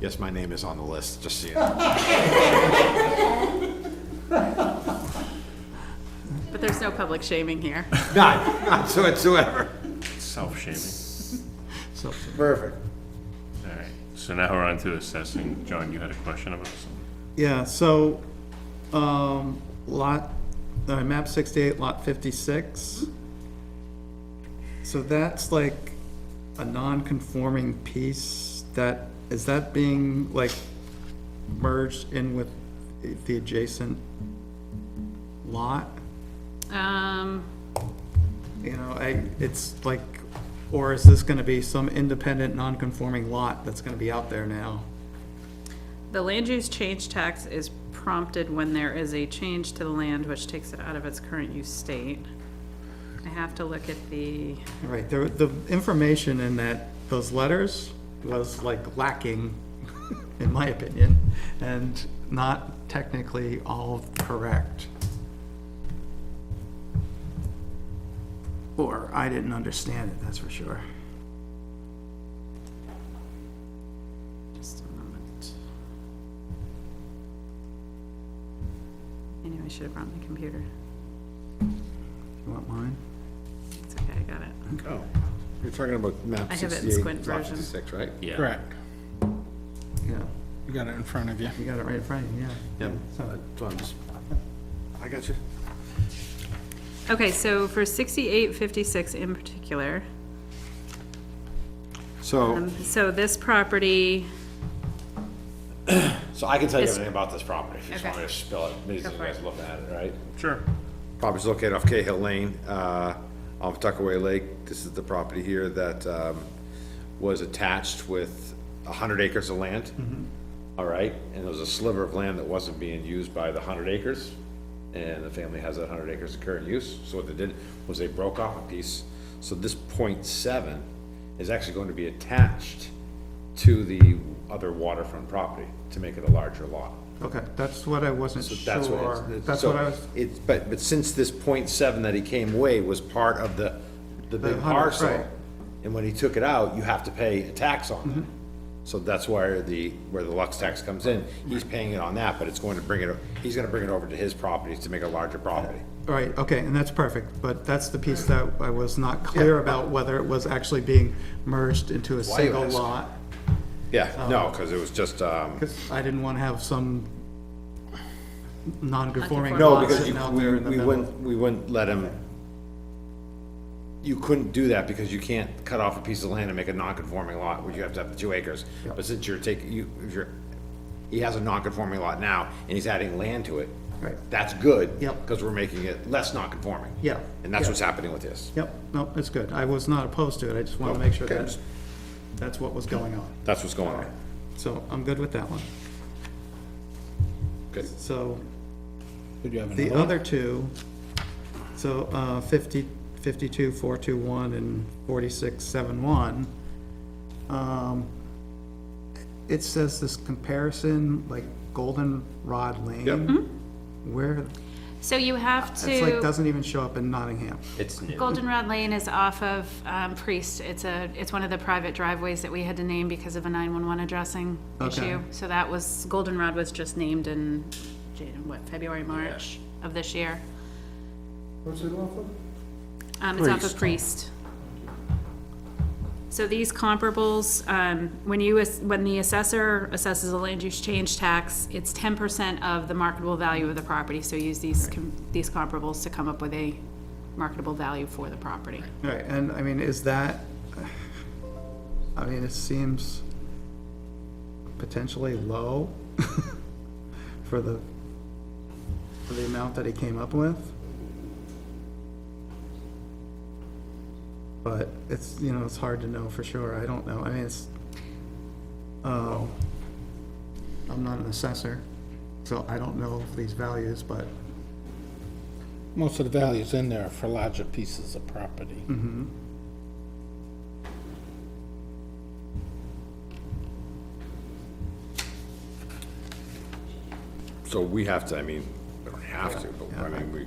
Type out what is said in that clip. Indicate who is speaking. Speaker 1: Yes, my name is on the list, just so you know.
Speaker 2: But there's no public shaming here.
Speaker 1: None, none whatsoever.
Speaker 3: Self-shaming.
Speaker 1: Perfect.
Speaker 3: All right. So now we're on to assessing. John, you had a question about something?
Speaker 4: Yeah, so, um, lot, uh, map sixty-eight, lot fifty-six. So that's like a non-conforming piece that, is that being like merged in with the adjacent lot?
Speaker 2: Um,
Speaker 4: You know, I, it's like, or is this gonna be some independent, non-conforming lot that's gonna be out there now?
Speaker 2: The land use change tax is prompted when there is a change to the land which takes it out of its current use state. I have to look at the,
Speaker 4: Right, the, the information in that, those letters was like lacking, in my opinion, and not technically all correct. Or I didn't understand it, that's for sure.
Speaker 2: just a moment. I knew I should have brought my computer.
Speaker 4: You want mine?
Speaker 2: It's okay, I got it.
Speaker 1: Oh, you're talking about map
Speaker 2: I have it in
Speaker 1: 68,
Speaker 2: squint
Speaker 1: lot
Speaker 2: version.
Speaker 1: 56, right?
Speaker 3: Yeah.
Speaker 5: Correct.
Speaker 4: Yeah,
Speaker 5: You got it in front of you.
Speaker 4: you got it right in front of you, yeah.
Speaker 1: Yep.
Speaker 4: So,
Speaker 1: um, I got you.
Speaker 2: Okay, so for sixty-eight fifty-six in particular,
Speaker 1: So,
Speaker 2: um, so this property,
Speaker 1: so I can tell you
Speaker 2: It's-
Speaker 1: everything about this property, if you just
Speaker 2: Okay.
Speaker 1: want me to spill it, maybe you
Speaker 2: Go for
Speaker 1: guys
Speaker 2: it.
Speaker 1: looking at it, right?
Speaker 3: Sure.
Speaker 1: Property's located off Cahill Lane, uh, off Tuckaway Lake. This is the property here that, um, was attached with a hundred acres of land. All right, and there was a sliver of land that wasn't being used by the hundred acres, and the family has that hundred acres of current use. So what they did was they broke off a piece. So this point seven is actually going to be attached to the other waterfront property to make it a larger lot.
Speaker 4: okay, that's what I wasn't sure.
Speaker 1: That's what it's.
Speaker 4: That's
Speaker 1: so
Speaker 4: what I was,
Speaker 1: It's, but, but since this point seven that he came away was part of the, the big
Speaker 4: 100, right. Mm-hmm.
Speaker 1: parcel, and when he took it out, you have to pay a tax on it. So that's where the, where the Lux tax comes in. He's paying it on that, but it's going to bring it, he's gonna bring it over to his properties to make a larger property.
Speaker 4: Right, okay, and that's perfect, but that's the piece that I was not clear about, whether it was actually being merged into a
Speaker 1: Why you
Speaker 4: single
Speaker 1: ask?
Speaker 4: lot.
Speaker 1: Yeah,
Speaker 4: Uh-huh.
Speaker 1: no, cause it was just, um,
Speaker 4: Because I didn't want to have some non-conforming
Speaker 2: No,
Speaker 1: no,
Speaker 4: lot
Speaker 1: because
Speaker 4: sitting
Speaker 1: you,
Speaker 4: out
Speaker 1: we,
Speaker 4: there in the
Speaker 1: we
Speaker 4: middle.
Speaker 1: wouldn't, we wouldn't let him, you couldn't do that because you can't cut off a piece of land and make a non-conforming lot, where you have to have the two acres. But since you're taking, you, if you're, he has a non-conforming lot now, and he's adding land to it.
Speaker 4: Right.
Speaker 1: That's good.
Speaker 4: Yep.
Speaker 1: Because we're making it less non-conforming.
Speaker 4: Yeah,
Speaker 1: And that's
Speaker 4: yeah.
Speaker 1: what's happening with this.
Speaker 4: Yep, no, it's good. I was not opposed to it. I just want to make sure
Speaker 1: Oh, Okay.
Speaker 4: that, that's what was going on.
Speaker 1: That's what's going on.
Speaker 4: So I'm good with that one.
Speaker 1: Good.
Speaker 4: So
Speaker 5: Did you have
Speaker 4: the
Speaker 5: another? one?
Speaker 4: other two, so uh, 50, 52, 421 and 4671, um, it says this comparison, like Golden Rod Lane. Where,
Speaker 2: so you have to.
Speaker 4: it's like, doesn't even show up in Nottingham.
Speaker 1: It's new.
Speaker 2: Goldenrod Lane is off of um, Priest. It's a, it's one of the private driveways that we had to name because of a 911 addressing
Speaker 4: Okay.
Speaker 2: issue. So that was, Goldenrod was just named in, Jan- what, February, March of this year. What's it off of? Um, it's off of Priest. So these comparables, um, when you, ass- when the assessor assesses a land use change tax, it's ten percent of the marketable value of the property, so use these, com- these comparables to come up with a marketable value for the property.
Speaker 4: Right, and I mean, is that, I mean, it seems potentially low for the, for the amount that he came up with. But it's, you know, it's hard to know for sure, I don't know, I mean, it's, oh, I'm not an assessor, so I don't know these values, but,
Speaker 5: Most of the values in there are for larger pieces of property.
Speaker 1: So we have to, I mean, we don't have to, but I mean, we,